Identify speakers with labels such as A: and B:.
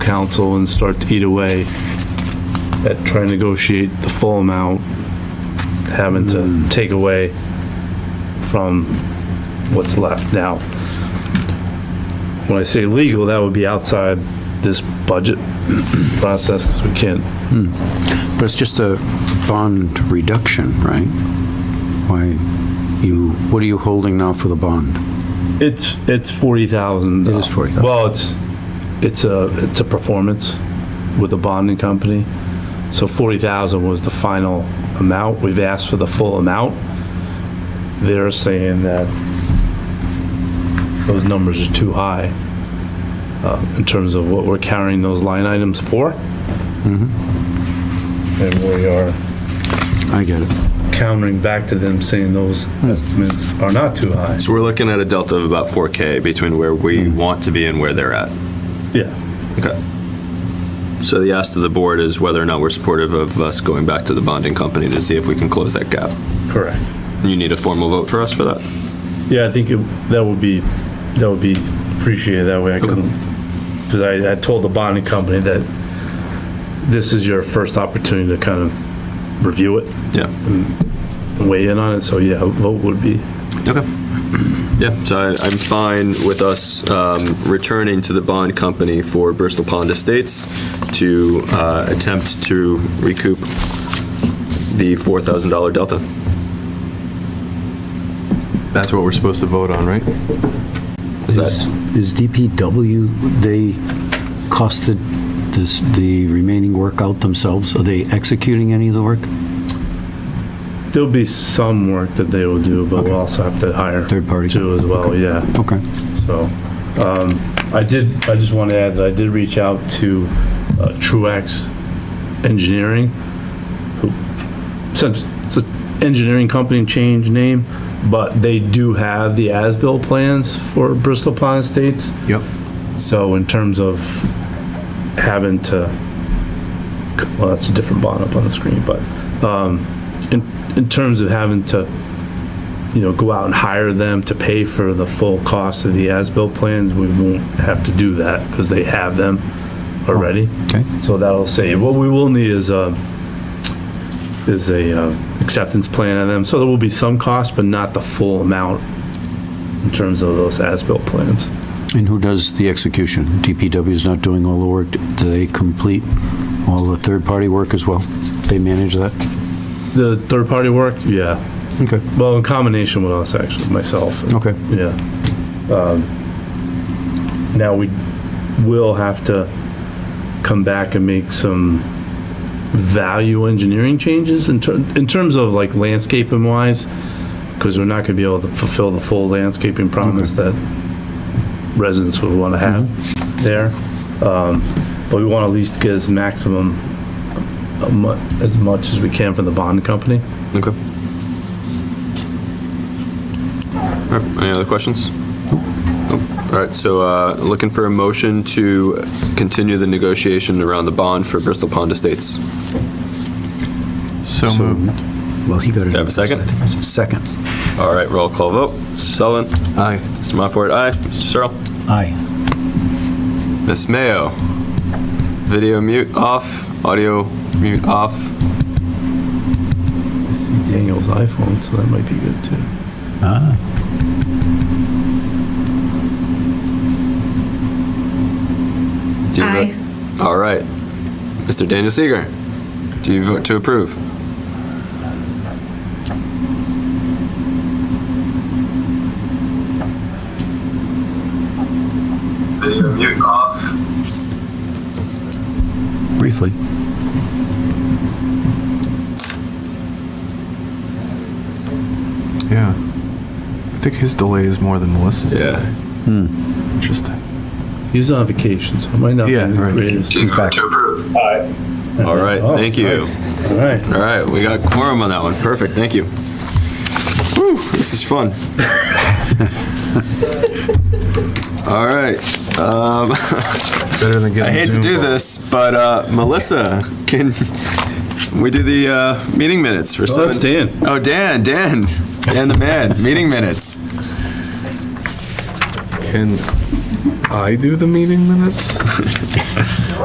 A: council and start to eat away at trying to negotiate the full amount, having to take away from what's left now. When I say legal, that would be outside this budget process, because we can't
B: But it's just a bond reduction, right? Why, you, what are you holding now for the bond?
A: It's, it's forty thousand.
B: It is $40,000.
A: Well, it's, it's a, it's a performance with the bonding company. So forty thousand was the final amount. We've asked for the full amount. They're saying that those numbers are too high uh, in terms of what we're carrying those line items for. And we are
B: I get it.
A: countering back to them saying those estimates are not too high.
C: So we're looking at a delta of about 4K between where we want to be and where they're at.
A: Yeah.
C: Okay. So the ask to the board is whether or not we're supportive of us going back to the bonding company to see if we can close that gap.
A: Correct.
C: You need a formal vote for us for that?
A: Yeah, I think it- that would be, that would be appreciated that way. I can, because I, I told the bonding company that this is your first opportunity to kind of review it
C: Yeah.
A: and weigh in on it, so yeah, a vote would be,
C: Okay. Yeah, so I- I'm fine with us um, returning to the bond company for Bristol Pond Estates to uh, attempt to recoup the $4,000 delta. That's what we're supposed to vote on, right? Is that?
B: Is DPW, they costed this, the remaining work out themselves? Are they executing any of the work?
A: there'll be some work that they will do, but we'll also have to hire.
B: Third party.
A: Too as well, yeah.
B: Okay.
A: So, um, I did, I just want to add that I did reach out to uh, Truax Engineering, who, since it's an engineering company and changed name, but they do have the as-built plans for Bristol Pond Estates.
B: Yep.
A: So in terms of having to, well, that's a different bond up on the screen, but, um, in, in terms of having to, you know, go out and hire them to pay for the full cost of the as-built plans, we won't have to do that because they have them already.
B: Okay.
A: So that'll save. What we will need is a, is a uh, acceptance plan of them. So there will be some cost, but not the full amount in terms of those as-built plans.
B: And who does the execution? DPW is not doing all the work. Do they complete all the third-party work as well? They manage that?
A: The third-party work, yeah.
B: Okay.
A: Well, in combination with us, actually, myself.
B: Okay.
A: Yeah. Um, Now, we will have to come back and make some value engineering changes in ter, in terms of like landscaping wise, because we're not gonna be able to fulfill the full landscaping promise that residents would wanna have there. Um, But we wanna at least get as maximum, uh, mu- as much as we can from the bond company.
C: Okay. All right, any other questions? Nope. All right, so uh, looking for a motion to continue the negotiation around the bond for Bristol Pond Estates.
D: So moved.
B: Well, he got it.
C: Do I have a second?
B: Second.
C: All right, roll call vote. Mr. Sullivan? Aye. Mr. Moffett, aye. Mr. Searle?
B: Aye.
C: Ms. Mayo? Video mute off, audio mute off.
A: I see Daniel's iPhone, so that might be good too.
C: Do you vote-
E: Aye.
C: All right. Mr. Daniel Seeger, do you vote to approve? Video mute off.
B: Briefly.
D: Yeah. I think his delay is more than Melissa's
C: Yeah.
D: delay. Interesting.
A: He's on vacation, so it might not be
D: Yeah,
A: the
D: right.
A: greatest.
B: He's back.
C: approve. All right,
A: Oh,
C: thank you.
A: nice. All right.
C: All right, we got quorum on that one. Perfect, thank you. Whew, this is fun. All right,
D: Better than getting
C: I hate to
D: Zoom
C: do
D: call.
C: this, but uh, Melissa, can we do the uh, meeting minutes for
A: So
C: seven?
A: that's Dan.
C: Oh, Dan, Dan, Dan the man, meeting minutes.
D: Can I do the meeting minutes?